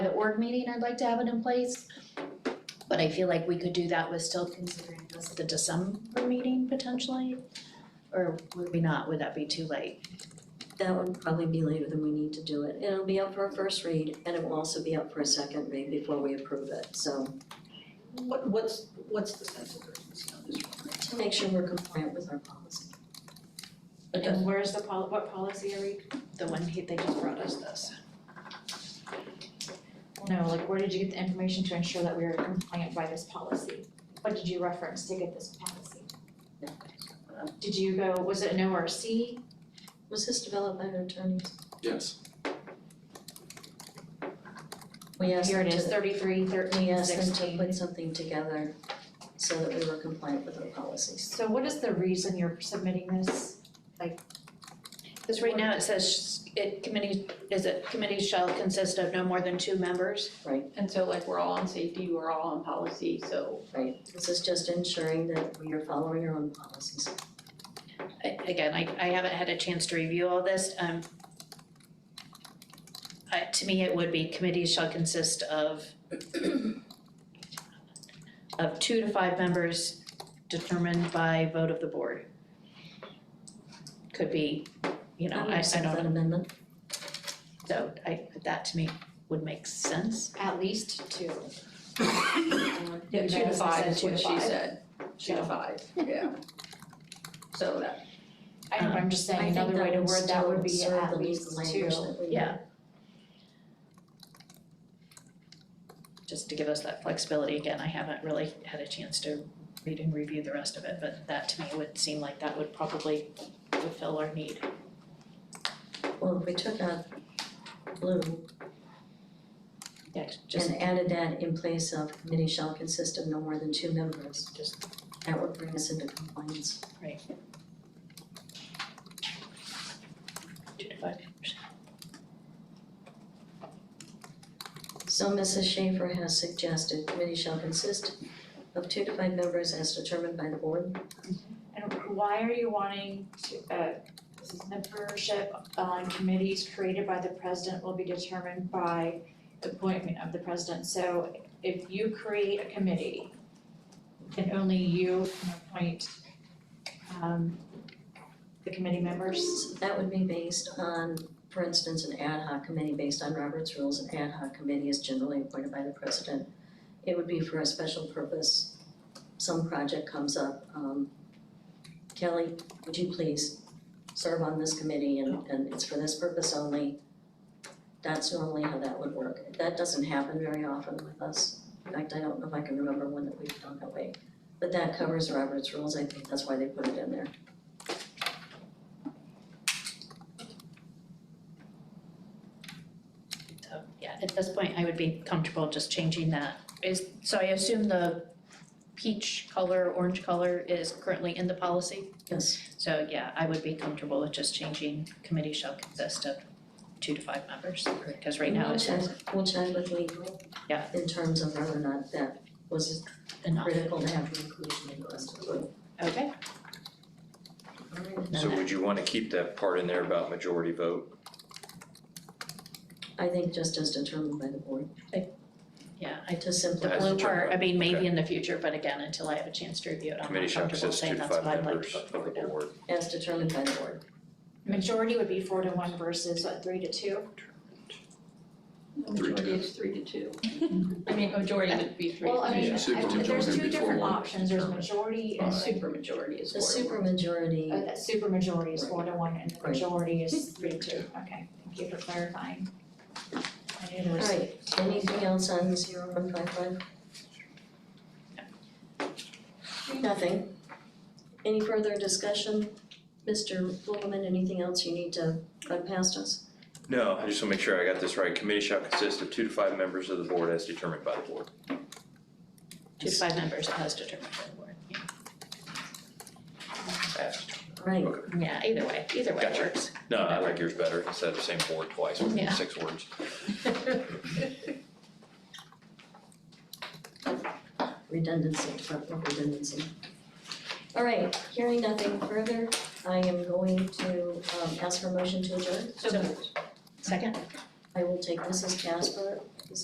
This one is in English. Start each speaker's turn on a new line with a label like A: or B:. A: org meeting, I'd like to have it in place. But I feel like we could do that with still considering this the December meeting potentially. Or would we not, would that be too late?
B: That would probably be later than we need to do it. And It'll be up for a first read and it will also be up for a second read before we approve it. So
C: What, what's, what's the sense of urgency on this one?
B: to make sure we're compliant with our policy.
C: It does-
D: And where's the pol, what policy are we?
A: The one he, they just brought us this.
D: No, like where did you get the information to ensure that we are compliant by this policy? What did you reference to get this policy? Did you go, was it an ORC?
B: Was this developed by our attorneys?
E: Yes.
B: We asked
D: Here
B: them
D: it is,
B: to,
D: thirty-three,
B: we
D: thirteen,
B: asked them to
D: sixteen.
B: put something together so that we were compliant with our policies.
D: So what is the reason you're submitting this?
A: Cause right now it says sh- it committee, is it committee shall consist of no more than two members?
F: And so like we're all on safety, we're all on policy, so
B: Right, this is just ensuring that we are following our own policies.
A: I- again, I I haven't had a chance to review all this, um. I to me, it would be committees shall consist of of two to five members determined by vote of the board. Could be, you know, I I
B: accept
A: don't,
B: That amendment,
A: so I, that to me would make sense.
D: At least two.
F: yeah, two to
D: As I
F: five
D: said,
F: is
D: two to
F: what she
D: five.
F: said, two to
D: So-
F: five, yeah. So that,
D: I know, but I'm just
B: I
A: Um,
D: saying
B: think
D: another way
B: that
D: to
B: would
D: word that
B: still
D: would be
B: serve the
D: at
B: legal
D: least two.
B: language that we need.
A: Yeah. Just to give us that flexibility, again, I haven't really had a chance to read and review the rest of it, but that to me would seem like that would probably fulfill our need.
B: Well, if we took out blue
A: Yeah, just,
B: and added that in place of committee shall consist of no more than two members, just that would bring us into compliance. So Mrs. Schaefer has suggested committee shall consist of two to five members as determined by the board.
D: And why are you wanting to, uh, this is membership on committees created by the president will be determined by the appointment of the president. So if you create a committee, then only you can appoint, um, the committee members.
B: So That would be based on, for instance, an ad hoc committee based on Robert's rules. An ad hoc committee is generally appointed by the president. It would be for a special purpose. Some project comes up, um, Kelly, would you please serve on this committee and, and it's for this purpose only? That's normally how that would work. That doesn't happen very often with us. In fact, I don't know if I can remember one that we've done that way. But that covers Robert's rules. I think that's why they put it in there.
A: so, yeah, at this point, I would be comfortable just changing that. Is, so I assume the peach color, orange color is currently in the policy?
B: Yes.
A: So yeah, I would be comfortable with just changing committee shall consist of two to five members, because right now it says
B: We'll check, we'll check with legal.
A: Yeah.
B: In terms of whether or not that was
A: enough.
B: critical to have the inclusion in the rest of the book.
A: Okay,
G: So
A: No, no.
G: would you wanna keep that part in there about majority vote?
B: I think just as determined by the board,
A: yeah, I,
B: to
A: the
B: simplify.
G: As
A: blue part, I mean, maybe
G: okay.
A: in the future, but again, until I have a chance to review it, I'm
G: Committee
A: not
G: shall
A: comfortable
G: consist of two
A: saying
G: to
A: that's what
G: five
A: I'd like to
G: members
A: put
G: of the board.
A: forward now.
B: as determined by the board.
D: Majority would be four to one versus what, three to two?
F: the
G: Three to two.
F: majority is three to two. I mean, majority would be three
D: Well, I
F: to
D: mean,
F: two,
E: Yeah, super
D: I- there's
E: majority
D: two
E: would be four
D: different
E: one.
D: options, there's majority
F: and
D: and
F: super majority is
B: The
F: four to one.
B: supermajority,
D: Oh, that supermajority is four to one and the
B: Right.
D: majority is three to two, okay, thank you for clarifying. I knew there was.
B: alright, anything else on zero one five five? Nothing. Any further discussion? Mr. Flugelman, anything else you need to run past us?
G: No, I just wanna make sure I got this right. Committee shall consist of two to five members of the board as determined by the board.
A: Two to five members as determined by the board. Yeah.
G: As-
B: Right,
A: Yeah, either way, either way
G: Gotcha.
A: works.
G: No, I like yours better, instead of the same board twice,
A: Yeah.
G: six words.
B: redundancy, Department of Redundancy. All right, hearing nothing further, I am going to um, ask for a motion to adjourn.
A: So moved. Second?
B: I will take Mrs. Casper